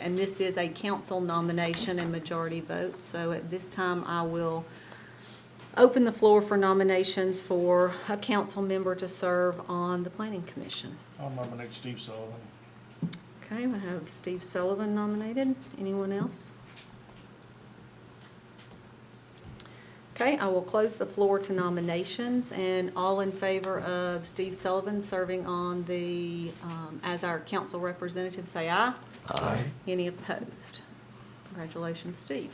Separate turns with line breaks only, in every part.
And this is a council nomination and majority vote, so at this time, I will open the floor for nominations for a council member to serve on the planning commission.
I'll nominate Steve Sullivan.
Okay, we have Steve Sullivan nominated. Anyone else? Okay, I will close the floor to nominations, and all in favor of Steve Sullivan serving on the, um, as our council representative, say aye. Aye. Any opposed? Congratulations, Steve.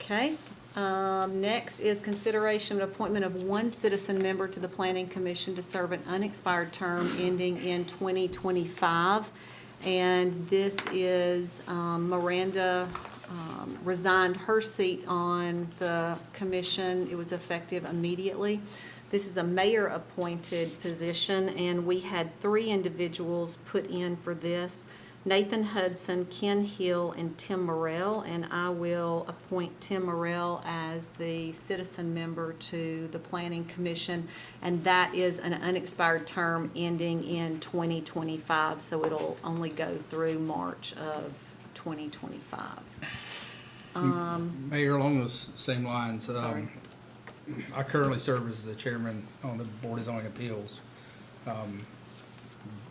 Okay, um, next is consideration and appointment of one citizen member to the Planning Commission to serve an unexpired term ending in 2025. And this is um, Miranda um, resigned her seat on the commission. It was effective immediately. This is a mayor-appointed position, and we had three individuals put in for this. Nathan Hudson, Ken Hill, and Tim Morrell, and I will appoint Tim Morrell as the citizen member to the Planning Commission, and that is an unexpired term ending in 2025, so it'll only go through March of 2025. Um,
Mayor, along those same lines, um,
Sorry.
I currently serve as the chairman on the Board of Zoning Appeals. Um,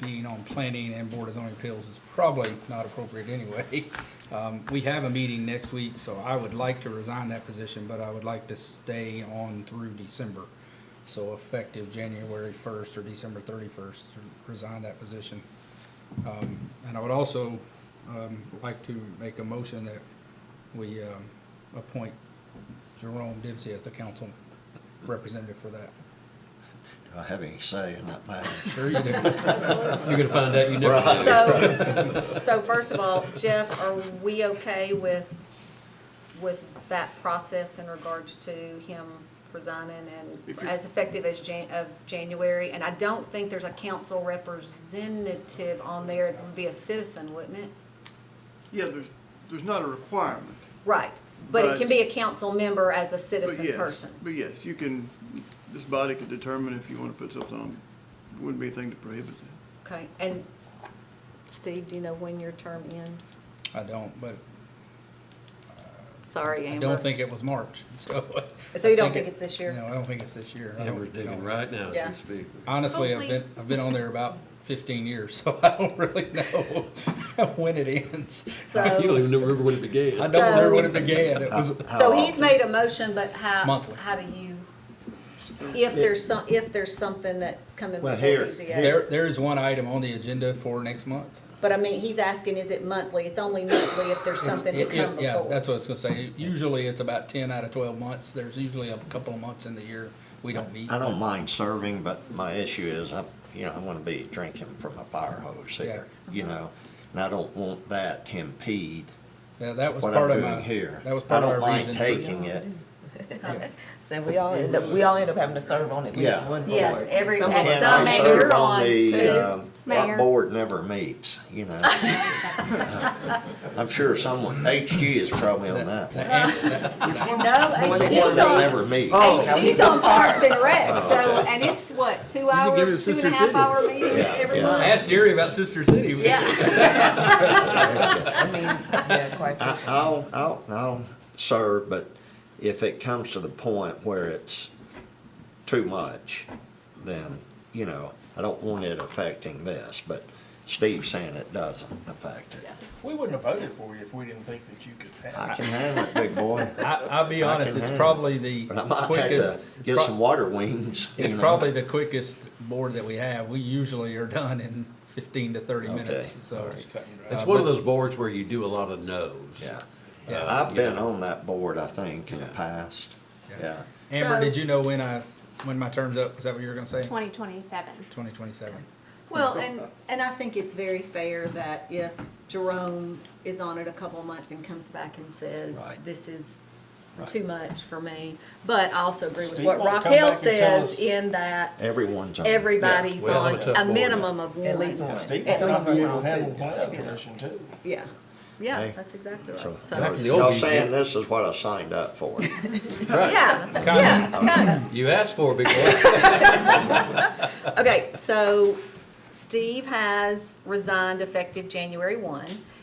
Being on planning and Board of Zoning Appeals is probably not appropriate anyway. Um, We have a meeting next week, so I would like to resign that position, but I would like to stay on through December. So effective January 1st or December 31st, resign that position. Um, And I would also um, like to make a motion that we um, appoint Jerome Dempsey as the council representative for that.
Do I uh, have any say in that matter?
Sure you do.
You're gonna find out you never.
So, so first of all, Jeff, are we okay with, with that process in regards to him resigning
If
and
you-
as effective as Jan, of January? And I don't think there's a council representative on there. It would be a citizen, wouldn't it?
Yeah, there's, there's not a requirement.
Right, but it can
But-
be a council member as a
but
citizen
yes-
person.
But yes, you can, this body could determine if you want to put something on, wouldn't be a thing to prohibit that.
Okay, and Steve, do you know when your term ends?
I don't, but
Sorry,
I
Amber.
don't think it was March, so.
So you don't
I
think
it-
it's this year?
No, I don't think it's this year. I don't-
Amber's digging
don't-
right now
Yeah.
as we speak.
Honestly, I've been, I've been on there about fifteen years, so I don't really know when it ends.
So.
You don't even remember when it began.
I don't remember when it began. It was,
So he's made a motion, but how,
monthly.
how do you, if there's some, if there's something that's coming before
Well, here-
BZA?
there, there is one item on the agenda for next month.
But I mean, he's asking, is it monthly? It's only monthly if there's something to
It- it-
come
Yeah,
before.
that's what I was gonna say. Usually it's about ten out of twelve months. There's usually a couple of months in the year we don't meet.
I don't mind serving, but my issue is, I'm, you know, I'm gonna be drinking from a fire hose here, you know? And I don't want that to impede
Yeah, that was
what
part
I'm
of my,
doing here.
that was part of our
I
reason.
don't
for-
mind taking it,
yeah.
So we all end up, we all end up having to serve on at least
Yeah.
one board.
Yes, every-
Some
at
boards
Can
some
are-
I
Mayor,
serve
you're
on
on
the,
too.
um,
Mayor.
what board never meets, you know? I'm sure someone, HG is probably on that one.
No, Oh, and
The
she's
one that
on,
never Oh, meets.
and she's on Parks and Rec, so, and it's what, two hour,
give
two
him
and a
Sister
half
City.
hour meetings
Yeah,
every
yeah.
month?
Ask Jerry about Sister City.
Yeah,
I mean, yeah, quite
I,
frankly.
I'll, I'll, I'll serve, but if it comes to the point where it's too much, then, you know, I don't want it affecting this, but Steve's saying it doesn't affect it.
We wouldn't have voted for you if we didn't think that you could
I
pass.
can handle it, big boy,
I, I'll be
I
honest,
can
it's
handle
probably the
but I might have to
quickest, it's
get
prob-
some water wings. you
it's
know.
probably the quickest board that we have. We usually are done in fifteen to thirty minutes,
Okay.
so.
It's one of those boards where you do a lot of no's.
Yeah,
Yeah.
I've been on that board, I think, in the past, yeah.
Amber,
So-
did you know when I, when my term's up? Was that what you were gonna say?
2027.
Twenty twenty-seven.
well, and, and I think it's very fair that if Jerome is on it a couple months and comes back and says,
Right.
this is
Right.
too much for me. But I also agree with
Steve
what
won't come back
Raquel
and tell
says
us-
in that
Everyone's on. it.
everybody's
Yeah, we
on
have a tough
a
board.
minimum of one.
At least one.
Steve
At
would
least
probably
one,
have a
too,
planning
so, yeah.
commission too.
Yeah, yeah,
Hey.
that's exactly right.
So-
So,
Back in the old
Y'all
days,
saying this is what I signed up for.
yeah,
Kind of,
You asked for it, big boy.
okay, so Steve has resigned effective January one.